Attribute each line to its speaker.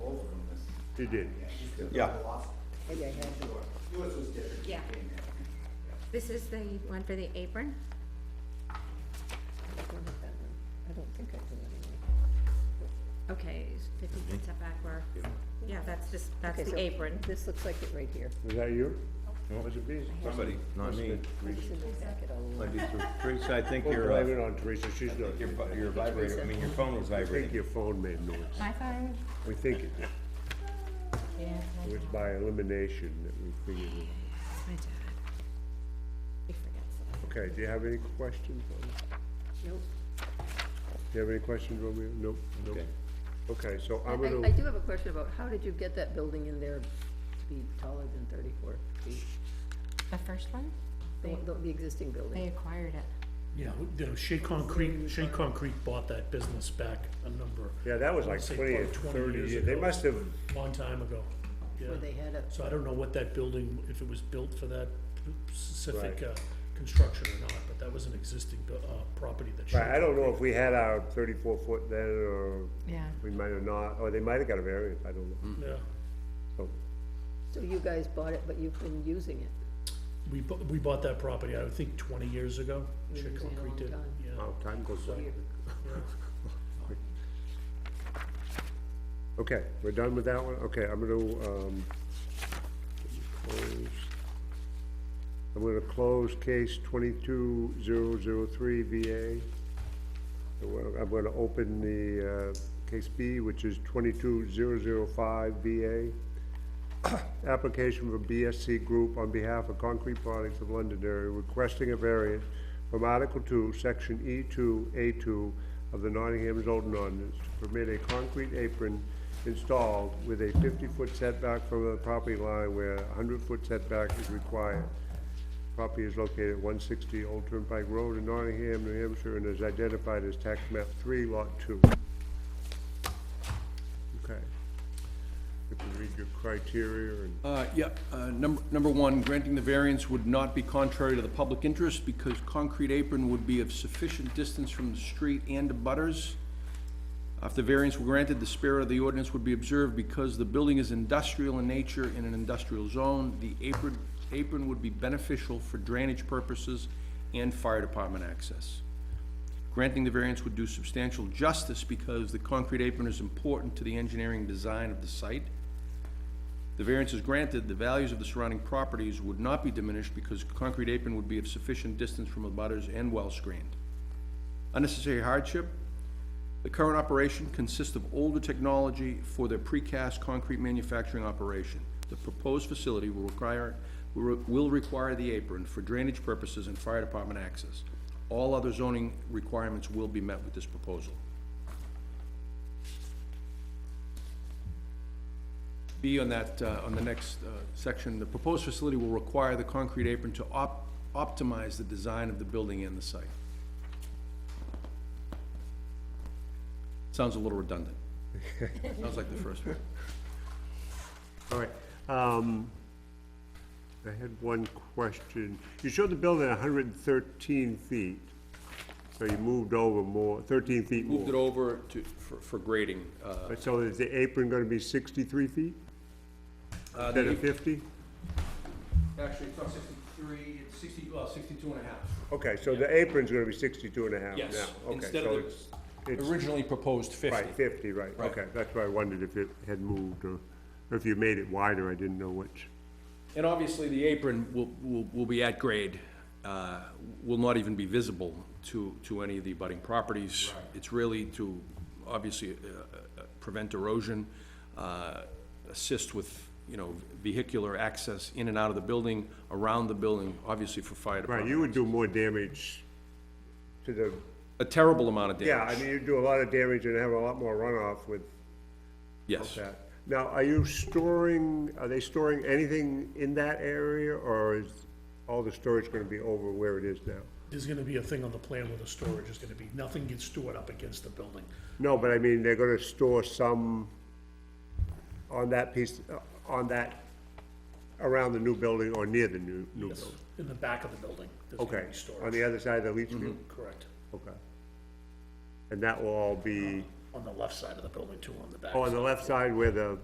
Speaker 1: She did.
Speaker 2: Yeah,
Speaker 3: Maybe I had to.
Speaker 4: Yeah. This is the one for the apron?
Speaker 3: I don't have that one. I don't think I do anymore.
Speaker 4: Okay, is fifty feet setback or, yeah, that's just, that's
Speaker 3: Okay,
Speaker 4: the
Speaker 3: so
Speaker 4: apron.
Speaker 3: This looks like it right here.
Speaker 1: Was that you? Was it Beasley?
Speaker 2: somebody, not me.
Speaker 3: It's in the packet all along.
Speaker 2: Might be through- Teresa, I think
Speaker 1: Don't
Speaker 2: your,
Speaker 1: blame
Speaker 2: uh,
Speaker 1: it on Teresa, she's not.
Speaker 2: your bu- your vibrator, I mean, your phone was
Speaker 1: I think
Speaker 2: vibrating.
Speaker 1: your phone made noise.
Speaker 4: My phone?
Speaker 1: We think it did.
Speaker 4: Yeah.
Speaker 1: It was by elimination that we figured it.
Speaker 4: My dad. He forgets it.
Speaker 1: Okay, do you have any questions? on it?
Speaker 3: Nope.
Speaker 1: Do you have any questions, Romeo? Nope, nope.
Speaker 2: Okay.
Speaker 1: Okay, so I'm
Speaker 3: I, I
Speaker 1: gonna,
Speaker 3: do have a question about, how did you get that building in there to be taller than thirty-four feet?
Speaker 5: The first one,
Speaker 3: The, one- the- the existing
Speaker 5: they
Speaker 3: building?
Speaker 5: acquired it.
Speaker 6: Yeah, you know, Shea Concrete, Shea Concrete bought that business back a number,
Speaker 1: yeah, that was like
Speaker 6: Say
Speaker 1: twenty or
Speaker 6: about 20
Speaker 1: thirty
Speaker 6: years
Speaker 1: years. They
Speaker 6: ago.
Speaker 1: must have,
Speaker 6: long time ago.
Speaker 3: Where they
Speaker 6: Yeah,
Speaker 3: had a,
Speaker 6: so I don't know what that building, if it was built for that specific,
Speaker 1: Right.
Speaker 6: uh, construction or not, but that was an existing, bu- uh, property that. Shea
Speaker 1: right, I don't know if we had our thirty-four foot then, or
Speaker 5: Yeah.
Speaker 1: we might have not, or they might have got a variance, I don't know.
Speaker 6: Concrete- Yeah,
Speaker 1: So,
Speaker 3: so you guys bought it, but you've been using it.
Speaker 6: we bu- we bought that property, I think, twenty years ago, Shea
Speaker 3: using it a
Speaker 6: Concrete
Speaker 3: long
Speaker 6: did,
Speaker 3: time.
Speaker 6: yeah.
Speaker 1: wow, time goes by.
Speaker 3: Weird.
Speaker 1: Okay, we're done with that one? Okay, I'm gonna, um, close. I'm gonna close case twenty-two zero zero three VA. And we're- I'm gonna open the, uh, case B, which is twenty-two zero zero five VA. Application for BSC Group on behalf of Concrete Products of Londonderry requesting a variance from Article Two, Section E two, A two of the Nottingham zoning ordinance to permit a concrete apron installed with a fifty-foot setback from the property line where a hundred-foot setback is required. Property is located at one sixty Old Turnpike Road in Nottingham, New Hampshire, and is identified as tax map three, lot two. Okay. If you read your criteria and
Speaker 7: Uh, yeah, uh, number, number one, granting the variance would not be contrary to the public interest because concrete apron would be of sufficient distance from the street and the butters. If the variance were granted, the spirit of the ordinance would be observed because the building is industrial in nature in an industrial zone. The apron, apron would be beneficial for drainage purposes and fire department access. Granting the variance would do substantial justice because the concrete apron is important to the engineering design of the site. The variance is granted, the values of the surrounding properties would not be diminished because concrete apron would be of sufficient distance from the butters and well-screened. Unnecessary hardship, the current operation consists of older technology for their precast concrete manufacturing operation. The proposed facility will require, will require the apron for drainage purposes and fire department access. All other zoning requirements will be met with this proposal. B on that, uh, on the next uh, section, the proposed facility will require the concrete apron to op- optimize the design of the building and the site. Sounds a little redundant. Sounds like the first one.
Speaker 1: All right, um, I had one question. You showed the building hundred and thirteen feet, so you moved over more, thirteen feet
Speaker 7: Moved it
Speaker 1: more.
Speaker 7: over to, for for grading. uh,
Speaker 1: But So is the apron gonna be sixty-three feet
Speaker 7: uh,
Speaker 1: instead
Speaker 7: the-
Speaker 1: of fifty?
Speaker 7: Actually, it's not sixty-three, it's sixty, well, sixty-two and a half.
Speaker 1: Okay, so the apron's gonna be sixty-two and a half now?
Speaker 7: Yes,
Speaker 1: Okay,
Speaker 7: instead
Speaker 1: so
Speaker 7: of
Speaker 1: it's,
Speaker 7: the
Speaker 1: it's,
Speaker 7: originally proposed fifty.
Speaker 1: right, fifty, right,
Speaker 7: Right.
Speaker 1: okay. That's why I wondered if it had moved or, or if you made it wider, I didn't know which.
Speaker 7: And obviously, the apron will, will, will be at grade, uh, will not even be visible to, to any of the abutting properties. It's really to, obviously, uh, uh, prevent erosion, uh, assist with, you know, vehicular access in and out of the building, around the building, obviously for fire
Speaker 1: Right, you
Speaker 7: department.
Speaker 1: would do more damage to the
Speaker 7: A terrible amount of damage.
Speaker 1: Yeah, I mean, you do a lot of damage and have a lot more runoff with
Speaker 7: Yes.
Speaker 1: that. Now, are you storing, are they storing anything in that area, or is all the storage gonna be over where it is now?
Speaker 6: There's gonna be a thing on the plan where the storage is gonna be, nothing gets stored up against the building.
Speaker 1: No, but I mean, they're gonna store some on that piece, uh, on that, around the new building or near the new, new
Speaker 6: Yes,
Speaker 1: building?
Speaker 6: in the back of the building, there's
Speaker 1: Okay,
Speaker 6: gonna be storage. Mm-hmm.
Speaker 1: on the other side of the leach field?
Speaker 6: Correct,
Speaker 1: Okay. And that will all be,
Speaker 6: on the left side of the building too, on the back.
Speaker 1: oh, on the left side where the